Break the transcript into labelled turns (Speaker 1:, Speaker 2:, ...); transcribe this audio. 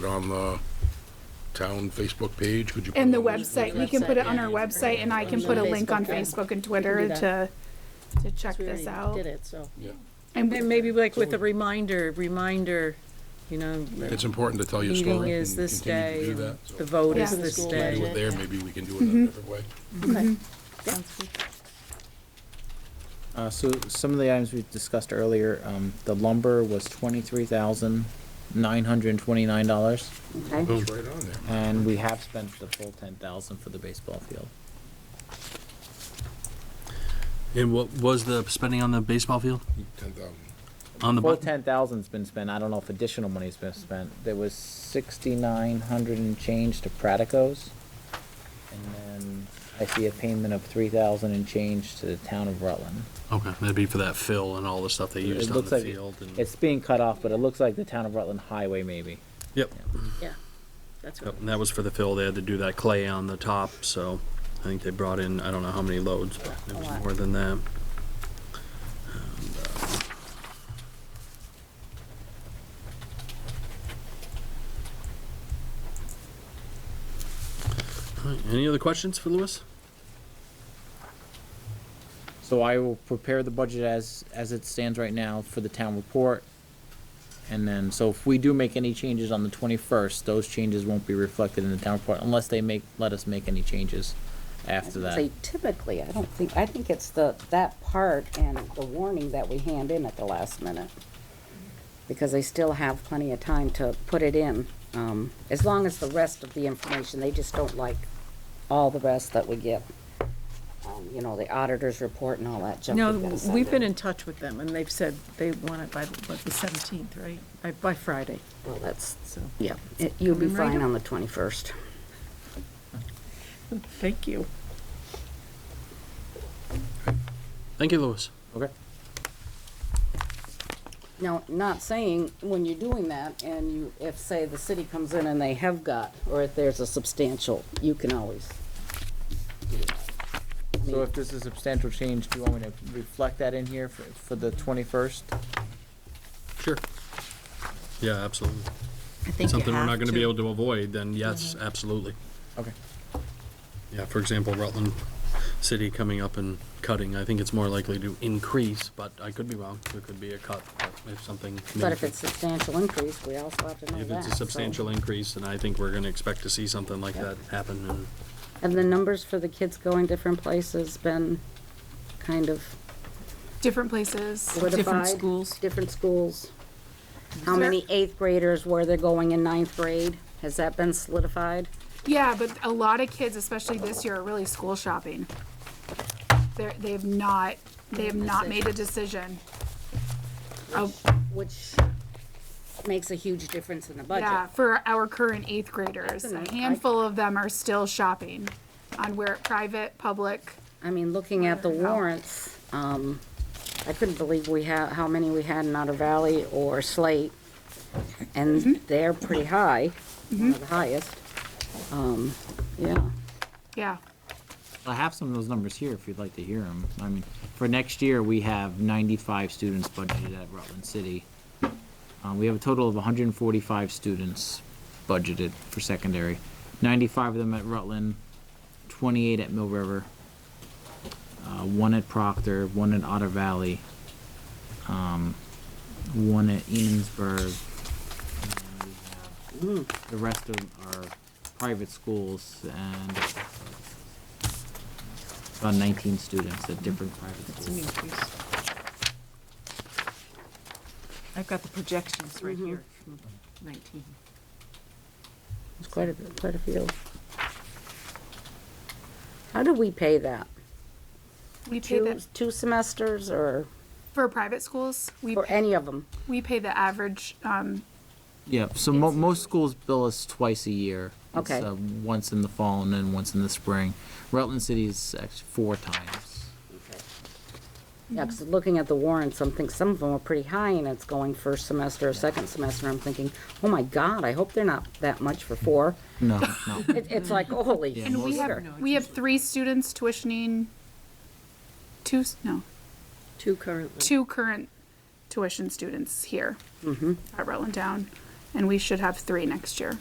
Speaker 1: Put it on the town Facebook page, could you? put
Speaker 2: And the
Speaker 1: it on
Speaker 2: website, we can put it on our website and I can put a link on Facebook and Twitter to, to check
Speaker 3: We
Speaker 2: this
Speaker 3: already
Speaker 2: out.
Speaker 3: Did it, so.
Speaker 1: Yeah.
Speaker 2: And
Speaker 4: And maybe like with a reminder, reminder, you know,
Speaker 1: It's important to tell your story.
Speaker 4: meeting
Speaker 1: and
Speaker 4: is this
Speaker 1: continue to
Speaker 4: day,
Speaker 1: do that, so
Speaker 4: the vote
Speaker 2: Yeah.
Speaker 4: is this
Speaker 3: School
Speaker 1: we Do
Speaker 4: day.
Speaker 1: it there, maybe we can do it
Speaker 2: Mm-hmm.
Speaker 1: in a different way.
Speaker 3: Okay.
Speaker 5: Uh, so some of the items we discussed earlier, um, the lumber was twenty-three thousand nine hundred and twenty-nine dollars,
Speaker 1: It was right on there.
Speaker 5: and we have spent the full ten thousand for the baseball field.
Speaker 6: And what was the spending on the baseball field?
Speaker 1: Ten thousand.
Speaker 6: On the
Speaker 5: Full
Speaker 6: button?
Speaker 5: ten thousand's been spent, I don't know if additional money's been spent, there was sixty-nine hundred and change to Pratico's. And then I see a payment of three thousand and change to the town of Rutland.
Speaker 6: Okay, that'd be for that fill and all the stuff they
Speaker 5: It
Speaker 6: used on
Speaker 5: looks
Speaker 6: the
Speaker 5: like
Speaker 6: field and,
Speaker 5: It's being cut off, but it looks like the town of Rutland Highway maybe.
Speaker 6: yep.
Speaker 3: Yeah, that's what.
Speaker 6: Yep, and that was for the fill. They had to do that clay on the top, so I think they brought in, I don't know how many loads, but it
Speaker 3: A
Speaker 6: was
Speaker 3: lot.
Speaker 6: more than that. uh, All right, Any other questions for Lewis?
Speaker 5: So I will prepare the budget as, as it stands right now for the town report. And then, so if we do make any changes on the twenty-first, those changes won't be reflected in the town report unless they make, let us make any changes after that.
Speaker 3: Say typically, I don't think, I think it's the, that part and the warning that we hand in at the last minute. Because they still have plenty of time to put it in, um, as long as the rest of the information, they just don't like all the rest that we get. Um, You know, the auditor's report and all that junk.
Speaker 4: No,
Speaker 3: we've gotta send
Speaker 4: we've been in
Speaker 3: in.
Speaker 4: touch with them and they've said they want it by, what, the seventeenth, right? By, by Friday,
Speaker 3: Well, that's,
Speaker 4: so,
Speaker 3: yeah, it- you'll be
Speaker 4: Coming right
Speaker 3: fine
Speaker 4: up.
Speaker 3: on the twenty-first.
Speaker 4: thank you.
Speaker 6: Thank you, Lewis.
Speaker 5: Okay.
Speaker 3: Now, not saying when you're doing that and you, if, say, the city comes in and they have got, or if there's a substantial, you can always.
Speaker 5: So if this is a substantial change, do you want me to reflect that in here for, for the twenty-first?
Speaker 6: Sure. Yeah, absolutely.
Speaker 4: I think
Speaker 6: Something we're not gonna be able to avoid, then yes, absolutely.
Speaker 5: Okay.
Speaker 6: Yeah, for example, Rutland City coming up and cutting, I think it's more likely to increase, but I could be wrong. There could be a cut if something.
Speaker 3: But if it's substantial increase, we also have to know
Speaker 6: If
Speaker 3: that.
Speaker 6: it's a
Speaker 3: so-
Speaker 6: substantial increase, then I think we're gonna expect to see something like that happen and
Speaker 3: And the numbers for the kids going different places been kind of
Speaker 2: different places.
Speaker 3: solidified?
Speaker 4: schools.
Speaker 3: Different schools. How
Speaker 2: there-
Speaker 3: many eighth graders, where they're going in ninth grade? Has that been solidified?
Speaker 2: Yeah, but a lot of kids, especially this year, are really school shopping. They're, they've not, they have not made a decision. Oh,
Speaker 3: Which makes a huge difference in the budget.
Speaker 2: yeah, for our current eighth graders, a handful of them are still shopping on where, private, public.
Speaker 3: I mean, looking at the warrants, um, I couldn't believe we have, how many we had in Otter Valley or Slate.
Speaker 2: Mm-hmm.
Speaker 3: And they're pretty high, one of the highest. Um, yeah,
Speaker 2: Yeah,
Speaker 5: I have some of those numbers here if you'd like to hear them. I mean, for next year, we have ninety-five students budgeted at Rutland City. Uh, we have a total of hundred and forty-five students budgeted for secondary. Ninety-five of them at Rutland, twenty-eight at Mill River, uh, one at Proctor, one at Otter Valley, um, one at Enosburg. and we have- The rest of them are private schools and about 19 students at different private
Speaker 4: It's an
Speaker 5: schools.
Speaker 4: increase. I've got the projections right here from nineteen.
Speaker 3: it's quite a, quite a few. How do we pay that?
Speaker 2: we pay
Speaker 3: Two,
Speaker 2: that,
Speaker 3: two semesters or,
Speaker 2: for private schools, we,
Speaker 3: or any of them?
Speaker 2: we pay the average, um,
Speaker 5: Yeah, so mo- most schools bill us twice a year. It's,
Speaker 3: Okay.
Speaker 5: uh, Once in the fall and then once in the spring. Rutland City is actually four times.
Speaker 2: Mm-hmm.
Speaker 3: Yeah, 'cause looking at the warrants, I'm thinking some of them are pretty high, and it's going first semester or second semester, I'm thinking, oh my God, I hope they're not that much for four.
Speaker 5: No, no.
Speaker 3: It, it's like, holy
Speaker 2: and we
Speaker 3: smoker.
Speaker 2: have, we have three students tuitioning, two, s- no,
Speaker 4: Two currently.
Speaker 2: two current tuition students here at Rutland Town. and we should have three next year.